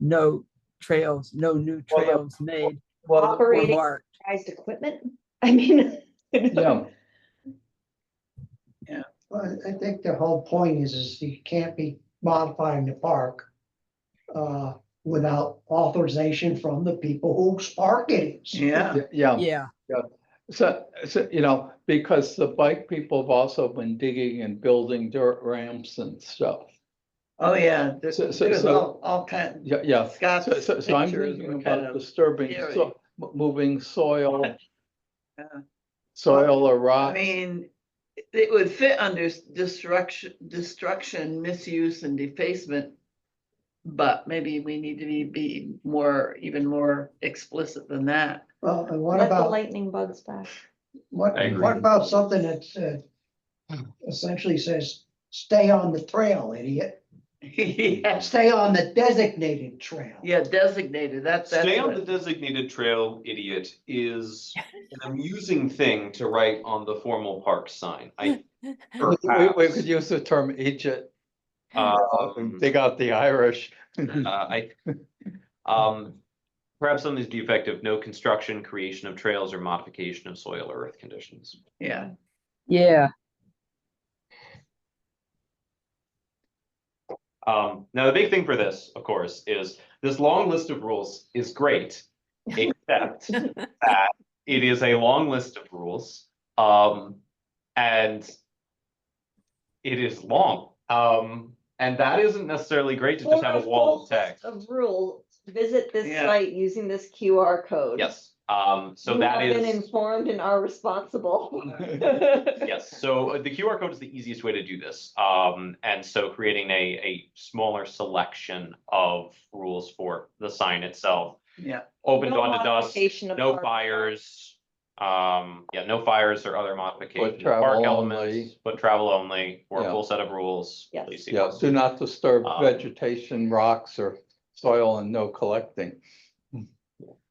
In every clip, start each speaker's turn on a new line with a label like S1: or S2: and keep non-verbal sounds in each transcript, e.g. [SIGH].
S1: no trails, no new
S2: Well, the-
S1: trails made or
S3: Operating
S1: marked.
S3: prized equipment? [LAUGHS] I mean.
S2: Yeah,
S4: Well, I think the whole point is, is you can't be modifying the park uh, without authorization from the people whose park it is.
S5: Yeah,
S2: yeah.
S1: Yeah,
S2: So, so, you know, because the bike people have also been digging and building dirt ramps and stuff.
S5: oh, yeah, there's,
S2: So, so,
S5: there's
S2: so,
S5: all, all kind,
S2: yeah, yeah.
S5: Scott's
S2: So, so, so I'm
S5: pictures
S2: thinking
S5: were kind
S2: about
S5: of,
S2: disturbing,
S5: scary.
S2: so- m- moving soil.
S5: Yeah.
S2: Soil or
S5: I
S2: rock.
S5: mean, it would fit under s- destruction, destruction, misuse and defacement. But maybe we need to be, be more, even more explicit than that. [LAUGHS]
S4: Well, and what
S3: Let the
S4: about,
S3: lightning bugs back.
S4: what,
S6: I agree.
S4: what about something that's uh, essentially says, stay on the trail, idiot,
S5: Yeah,
S4: stay on the designated trail.
S5: yeah, designated, that's, that's.
S6: Stay on
S5: what-
S6: the designated trail, idiot, is an amusing thing to write on the formal park sign. I,
S2: We- We, we
S6: perhaps,
S2: could use the term Egypt, Uh,
S6: um,
S2: dig out the Irish.
S6: uh, I, um, perhaps something's defective, no construction, creation of trails or modification of soil or earth conditions.
S5: Yeah,
S1: yeah,
S6: Um, now the big thing for this, of course, is this long list of rules is great, except that it is a long list of rules. Um, and it is long. Um, and that isn't necessarily great to just have a wall of text.
S3: Of rule, visit this
S5: Yeah.
S3: site using this QR code.
S6: Yes, um, so
S3: You
S6: that
S3: have Been
S6: is,
S3: informed and are
S6: [LAUGHS]
S3: responsible. [LAUGHS]
S6: yes, so uh, the QR code is the easiest way to do this. Um, and so creating a, a smaller selection of rules for the sign itself.
S5: yeah,
S6: Open
S3: No
S6: dawn to dusk.
S3: modification of
S6: No
S3: park.
S6: fires, um, yeah, no fires or other modifications,
S2: travel
S6: park
S2: only.
S6: elements, but travel only, or
S2: Yeah.
S6: a full set of rules.
S3: Yes.
S6: please see
S2: Yeah, Uh,
S6: us.
S2: do not disturb
S6: Um,
S2: vegetation, rocks or soil and no collecting.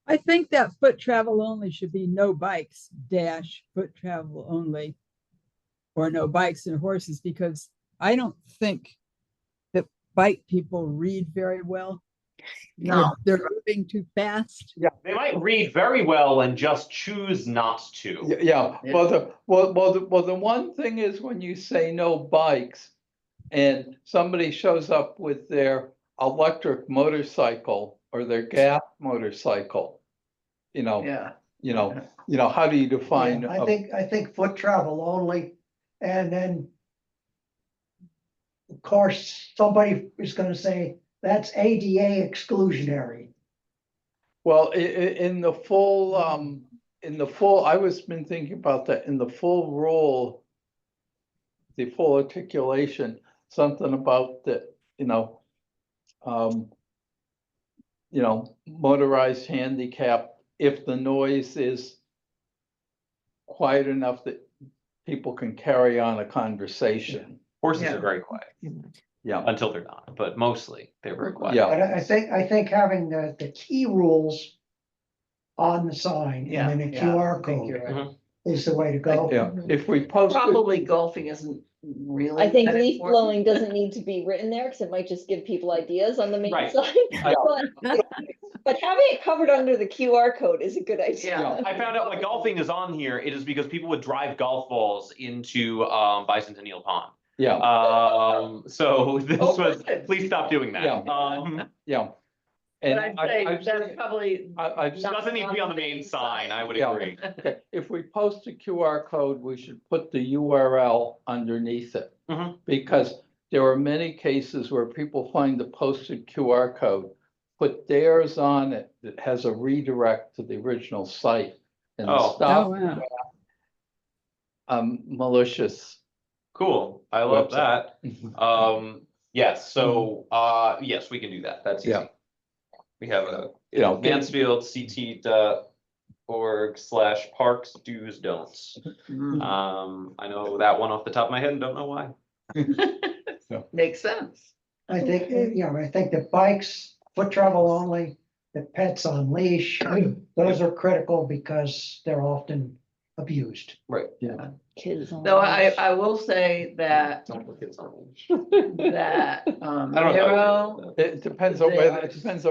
S1: I think that foot travel only should be no bikes dash foot travel only. Or no bikes and horses, because I don't think that bike people read very well. They're-
S5: No.
S1: They're moving too fast.
S6: They might read very well and just choose not
S2: Y-
S6: to.
S2: Yeah,
S5: Yeah.
S2: well, the, well, well, the, well, the one thing is when you say no bikes and somebody shows up with their electric motorcycle or their gas motorcycle, you know,
S5: yeah,
S2: you know, you know, how do you define?
S4: Yeah, I
S2: a-
S4: think, I think foot travel only, and then. Of course, somebody is gonna say, that's ADA exclusionary.
S2: Well, i- i- in the full, um, in the full, I was been thinking about that, in the full rule. The full articulation, something about the, you know. Um. You know, motorized handicap, if the noise is. Quiet enough that people can carry on a conversation,
S6: Horses
S5: Yeah.
S6: are very quiet,
S2: yeah,
S6: until they're not, but mostly they're very quiet.
S2: yeah.
S4: But I I think, I think having the, the key rules on the sign
S5: Yeah,
S4: and then a
S5: yeah, I
S4: QR
S5: think
S4: code
S5: you're right.
S2: Mm-hmm.
S4: is the way to go.
S2: yeah,
S3: Mhm.
S2: if we post. it-
S5: probably golfing isn't really.
S3: I think
S5: that
S3: leaf
S5: important.
S3: blowing doesn't need to be written there because it might just give people ideas on the main
S6: Right.
S3: side. [LAUGHS] But but having it covered under the QR code is a good idea.
S2: Yeah.
S6: I found out why golfing is on here. It is because people would drive golf balls into, um, Bicentennial Pond.
S2: Yeah,
S6: Um, so [LAUGHS] this
S5: Oh,
S6: was,
S5: good.
S6: please stop doing that.
S2: Yeah.
S6: Um,
S2: yeah. And
S5: But
S2: I,
S5: I'd say
S2: I've seen
S5: that's
S2: it-
S5: probably.
S2: I, I've
S5: not
S6: doesn't need to be on the main sign, I would agree.
S2: Okay, if we post a QR code, we should put the URL underneath it.
S6: Mhm.
S2: Because there are many cases where people find the posted QR code, put theirs on it that has a redirect to the original site. And the
S6: Oh.
S1: Oh,
S2: stuff,
S1: wow.
S2: um, malicious.
S6: Cool, I love
S2: Website.
S6: that. Um, yes, so, uh, yes, we can do that, that's
S2: Yeah.
S6: easy. We have a
S2: You know, get-
S6: Mansfield CT dot org slash parks do's don'ts.
S5: Mm,
S6: Um, I know that one off the top of my head and don't know why.
S5: Makes sense.
S4: I think, eh, you know, I think the bikes, foot travel only, the pets on leash, those are critical because they're often abused.
S3: Kids. on
S5: Though I,
S3: leash.
S5: I will say that,
S6: Don't look at something.
S5: that, um,
S6: [LAUGHS] I don't know.
S5: Arrow
S2: it depends on
S5: They
S2: whether,
S5: are-
S2: it depends on